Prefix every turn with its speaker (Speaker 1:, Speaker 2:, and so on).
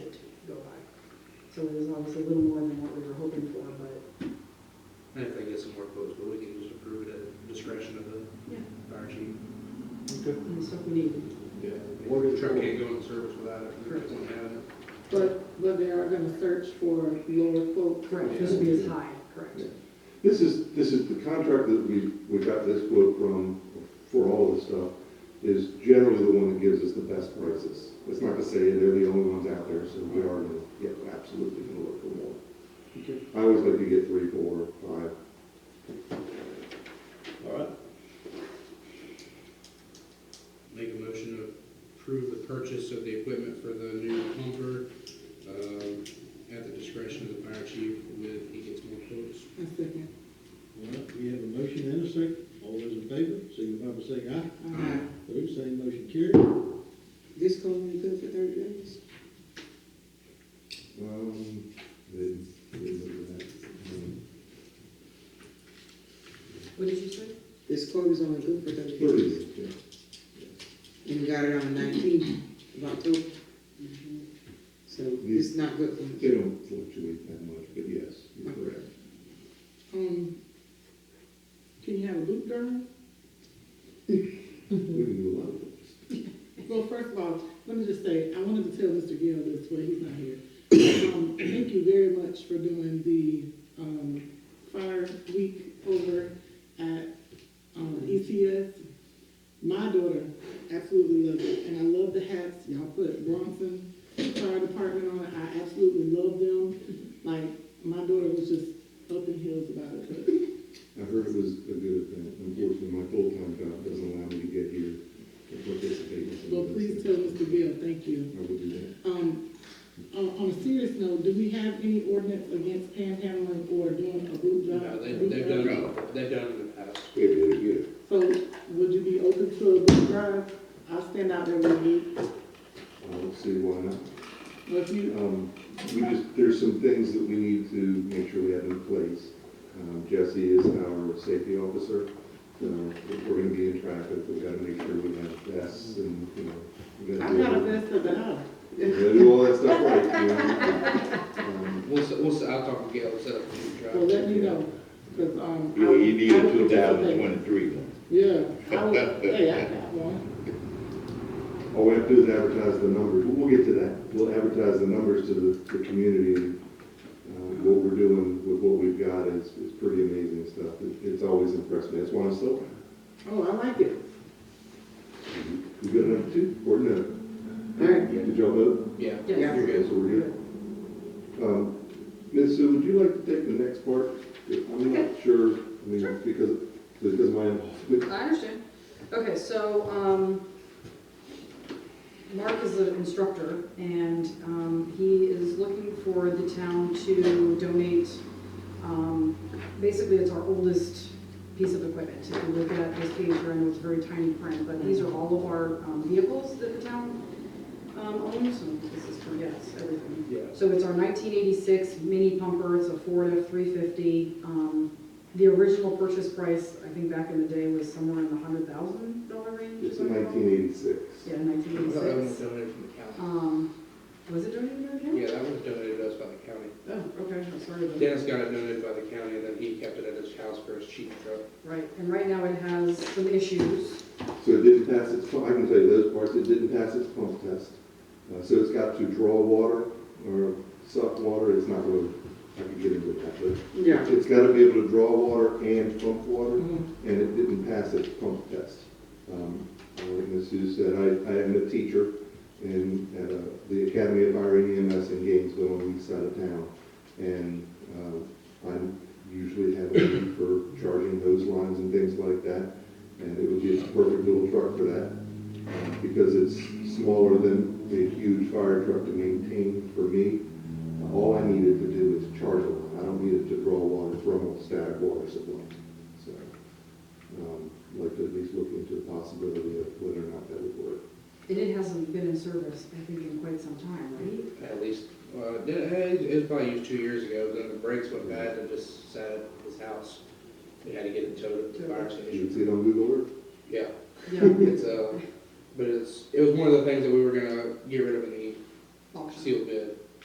Speaker 1: So it was obviously a little more than what we were hoping for, but
Speaker 2: And if they get some more quotes, but we can just approve it at discretion of
Speaker 1: Yeah.
Speaker 2: the fire chief.
Speaker 1: it's stuff we needed.
Speaker 3: Yeah. What
Speaker 2: The
Speaker 3: is,
Speaker 2: Truck can't go in service without it. We just don't have it.
Speaker 4: But, but they are gonna search for lower quote.
Speaker 1: Correct, this would be as high, correct.
Speaker 3: this is, this is the contract that we, we got this quote from, for all of this stuff, is generally the one that gives us the best prices. It's not to say they're the only ones out there, so we are, gonna- yeah, absolutely gonna look for more.
Speaker 5: Okay.
Speaker 3: I always like to get three, four, five.
Speaker 5: All right,
Speaker 2: Make a motion to approve the purchase of the equipment for the new pumper, um, at the discretion of the fire chief with, he gets more quotes.
Speaker 4: I second.
Speaker 5: all right, we have a motion and a second, all those in favor, signify by saying aye.
Speaker 4: Aye.
Speaker 5: Opposed, same motion carried.
Speaker 4: Um, This going to be good for thirty days?
Speaker 3: Um, then, then look at that. Um,
Speaker 1: What did you say?
Speaker 4: This quote is only good for thirty days.
Speaker 3: Thirty, yeah.
Speaker 4: And we got it on nineteenth of October. So it's not good for
Speaker 3: They don't fluctuate that much, but yes, you're correct.
Speaker 4: Um, can you have a loop girl?
Speaker 3: We can do a lot of things.
Speaker 6: Well, first of all, let me just say, I wanted to tell Mr. Gill this, but he's not here. Um, Thank you very much for doing the um, fire week over at um, ECS. My daughter absolutely loved it, and I love the hats y'all put Bronson Fire Department on. it. I absolutely love them. Like, my daughter was just up in heels about it.
Speaker 3: I heard it was a good event. Unfortunately, my full-time job doesn't allow me to get here to participate in
Speaker 6: but-
Speaker 3: some
Speaker 6: Well,
Speaker 3: of those things.
Speaker 6: please tell Mr. Gill, thank you.
Speaker 3: I will do that.
Speaker 6: Um, on, on a serious note, do we have any ordinance against panhandling or doing a boot drive?
Speaker 2: No, Uh, they, they've done, they've done it in the past.
Speaker 3: Yeah, yeah, yeah.
Speaker 6: So would you be open to a boot drive? I'll stand out there with you.
Speaker 3: I don't see why not.
Speaker 6: Well, if you,
Speaker 3: Um, we just, there's some things that we need to make sure we have in place. Um, Jesse is our safety officer. Uh, if we're gonna be in traffic, we gotta make sure we have vests and, you know. we gotta
Speaker 6: I'm
Speaker 3: do
Speaker 6: not a
Speaker 3: all-
Speaker 6: vest of the house.
Speaker 3: We gotta do all that stuff right, you know. Um,
Speaker 2: We'll, se- we'll, se- I'll talk to Gail, set up a new
Speaker 6: So
Speaker 2: drive.
Speaker 6: let me know, cause, um.
Speaker 7: You, you need
Speaker 6: I
Speaker 7: a
Speaker 6: would
Speaker 7: two thousand
Speaker 6: participate.
Speaker 7: twenty-three one.
Speaker 6: Yeah, I would, hey, I got one.
Speaker 3: All we have to do is Oh, advertise the numbers, we'll get to that. We'll advertise the numbers to the, the community, and, uh, what we're doing with what we've got is, is pretty amazing stuff. It- It's always impressed me, that's why I'm still,
Speaker 6: Oh, I like it.
Speaker 3: we Mm-hmm. good enough too, or no?
Speaker 4: All right.
Speaker 3: Did y'all vote?
Speaker 2: Yeah.
Speaker 4: Yes.
Speaker 2: You're
Speaker 3: Okay,
Speaker 2: good.
Speaker 3: so we're good. Um, Ms. Sue, would you like to take the next part? I'm not sure, I mean, because, because of my involvement.
Speaker 1: I understand. Okay, so, um, Mark is an instructor, and, um, he is looking for the town to donate, um, basically it's our oldest piece of equipment. If you look at this page, you're in, it's very tiny print, but these are all of our um, vehicles that the town, um, owns, so this is for, yes, everything.
Speaker 2: Yeah.
Speaker 1: So it's our 1986 mini pumper, it's a Ford F-350. Um, The original purchase price, I think back in the day, was somewhere in the $100,000 range.
Speaker 3: It's
Speaker 1: if I recall.
Speaker 3: nineteen eighty-six.
Speaker 1: Yeah,
Speaker 2: I thought that one was
Speaker 1: 1986.
Speaker 2: donated from the county.
Speaker 1: Um, Was it donated by the county?
Speaker 2: Yeah, that one was donated to us by the county.
Speaker 1: Oh, okay, I'm sorry about that.
Speaker 2: Dennis got it donated by the county, and then he kept it at his house for his cheap truck.
Speaker 1: Right, and right now it has some issues.
Speaker 3: So it didn't pass its, I can tell you those parts, it didn't pass its pump test. Uh, so it's got to draw water or suck water, it's not really, I could get into that, but
Speaker 4: Yeah.
Speaker 3: it's gotta be able to draw water and pump water,
Speaker 6: Mm-hmm.
Speaker 3: and it didn't pass its pump test. Um, uh, like Ms. Sue said, I, I am a teacher in, at, uh, the Academy of Fire and EMS in Gainesville on the east side of town. And, uh, I usually have a need for charging hose lines and things like that and it would be a perfect little truck for that, uh, because it's smaller than a huge fire truck to maintain for me. Uh, All I needed to do is charge it, I don't need it to draw water from a static water supply. So, um, I'd like to at least look into the possibility of whether or not that would work.
Speaker 1: And it hasn't been in service, I think, in quite some time, right?
Speaker 2: At least, uh, it, it was probably used two years ago, then the brakes went bad and just sat at his house. We had to get it towed to the fire
Speaker 3: You can
Speaker 2: station.
Speaker 3: see it on Google Earth.
Speaker 2: Yeah,
Speaker 1: Yeah,
Speaker 2: it's, uh, but it's, it was one of the things that we were gonna get rid of in the
Speaker 1: auction.
Speaker 2: sealed bid.